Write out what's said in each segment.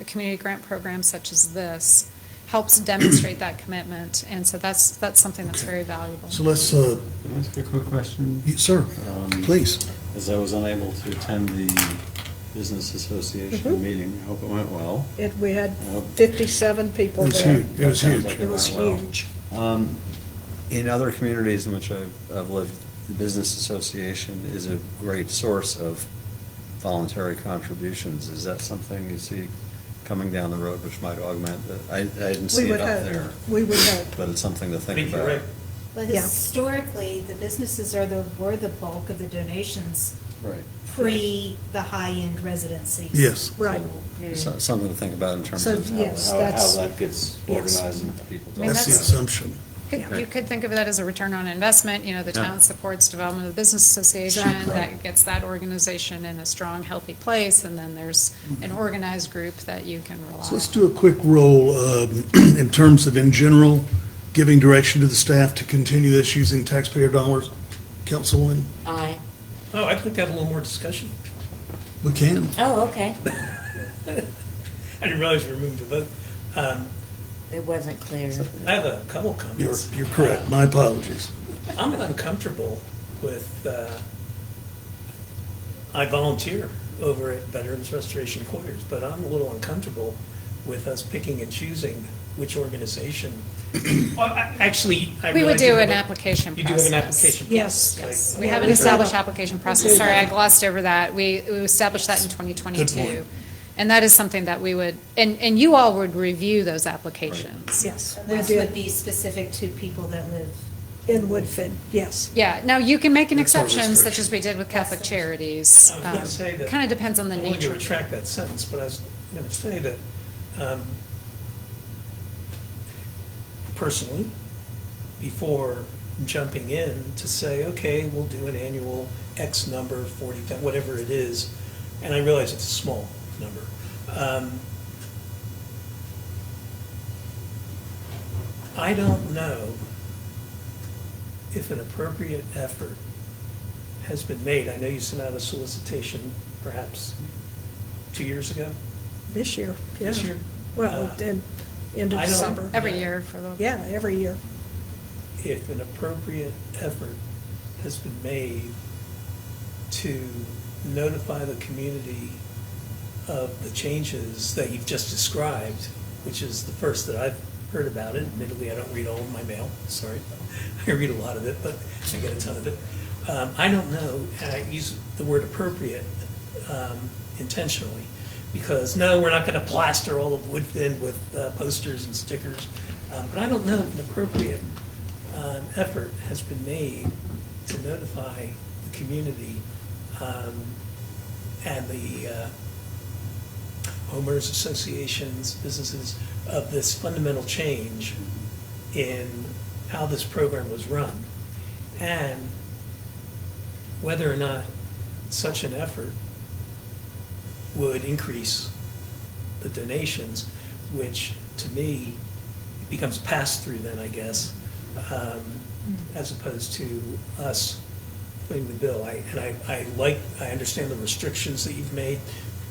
a community grant program such as this helps demonstrate that commitment. And so that's, that's something that's very valuable. So let's, uh, Can I ask a quick question? you- sir, Um, please. As I was unable to attend the Business Association Mhm. meeting, I hope it went well. It, we had I hope- 57 It people was there. huge, it was Sounds huge. like It was Wow. huge. Um, In other communities in which I've, I've lived, the Business Association is a great source of voluntary contributions. Is that something you see coming down the road which might augment? the- I, I didn't see We it would up hope. there, We would hope. but it's something to I think think you're about. right. But Yeah. historically, the businesses are the, were the bulk of the donations Right. pre the high-end residencies. Yes. Right. So- Something to think about in terms So, of how, yes, how- how that's- that gets yes. organized and people. I mean, That's the that's- assumption. Could- Yeah. You could think of that as a return on investment, you know, the Yeah. town supports development of the business association, Exactly. that gets that organization in a strong, healthy place, and then there's an organized group that you can rely on. Mm-hmm. So let's do a quick roll um, in terms of, in general, giving direction to the staff to continue this using taxpayer dollars. Councilwoman, Aye. No, Oh, I'd like to have a little more discussion. we can. Oh, okay. I didn't realize we were moving to vote. Um, It wasn't clear. I have a couple You're, comments. Uh, you're correct. My apologies. I'm uncomfortable with, uh, I volunteer over at Veterans Restoration Quarters, but I'm a little uncomfortable with us picking and choosing which organization. Well, I- Actually, I We would realize you do have an a- application You do have an process. application. Yes. process. Yes, Like, we have an Yeah. established application process. Sorry, I glossed over that. We, we established that in Good point. 2022. And that is something that we would, and, and you all would review those applications. Yes, And we That did. would be specific to people that live. In Woodfin, yes. Yeah, now you can make an That's our exception, such restriction. as we did with Catholic Charities. I was gonna say that- Kind of depends on the I wanted to nature. retract that sentence, but I was going to say that um, personally, before jumping in to say, okay, we'll do an annual X number, 40, whatever it is, and I realize it's a small number. um, I don't know if an appropriate effort has been made. I know you sent out a solicitation perhaps two years ago. This year. yeah. This year. Well, Uh, in, end of I don't- December. Every year for the. Yeah, every year. If an appropriate effort has been made to notify the community of the changes that you've just described, which is the first that I've heard about it. Admittedly, I don't read all of my mail, sorry. I read a lot of it, but I get a ton of it. Um, I don't know, and I use the word appropriate um, intentionally, because no, we're not going to plaster all of Woodfin with uh, posters and stickers. Um, But I don't know if an appropriate um, effort has been made to notify the community um, and the uh, homeowners associations, businesses, of this fundamental change in how this program was run, and whether or not such an effort would increase the donations, which to me becomes pass-through then, I guess, um, as opposed to us footing the bill. I- And I, I like, I understand the restrictions that you've made,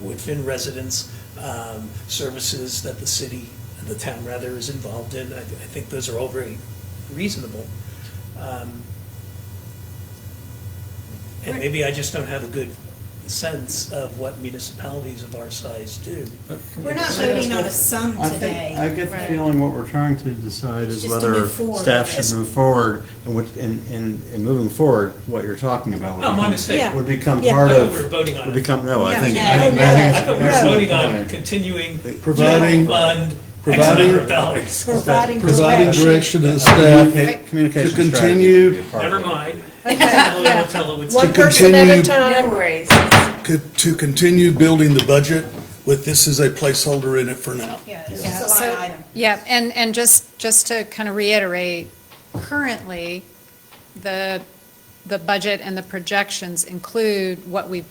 Woodfin residents, um, services that the city, the town rather, is involved in. I, I think those are all very reasonable. Um, And maybe I just don't have a good sense of what municipalities of our size do. We're not voting on a sum I think, I today. get the feeling what we're trying to decide is Just to whether move forward. staff should move forward, and what, and, and, and moving forward, what you're talking about. would Oh, my become- mistake. Yeah. Would become Yeah. part I thought of. we were voting on Would it. become, no, I Yeah. think. No, I think- no, I think- I thought we were that's- voting on continuing to Providing- fund X providing- number of dollars. Providing Providing direction to the staff Communica- Communication To strategy continue- would be a part Never of it. mind. I'll tell it what's- One person at a continue- No time. worries. Could- to continue building the budget with this as a placeholder in it for now. Yeah, it's Yeah, just a so- line item. Yeah, and, and just, just to kind of reiterate, currently, the, the budget and the projections include what we've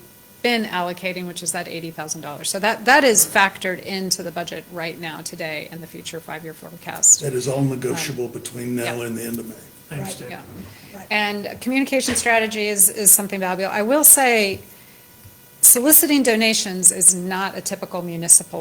been allocating, which is that $80,000. So that, that is factored into the budget right now, today, and the future five-year forecast. That is all negotiable between now Yeah. and the end of May. I understand. Yeah. And communication strategy is, is something valuable. I will say soliciting donations is not a typical municipal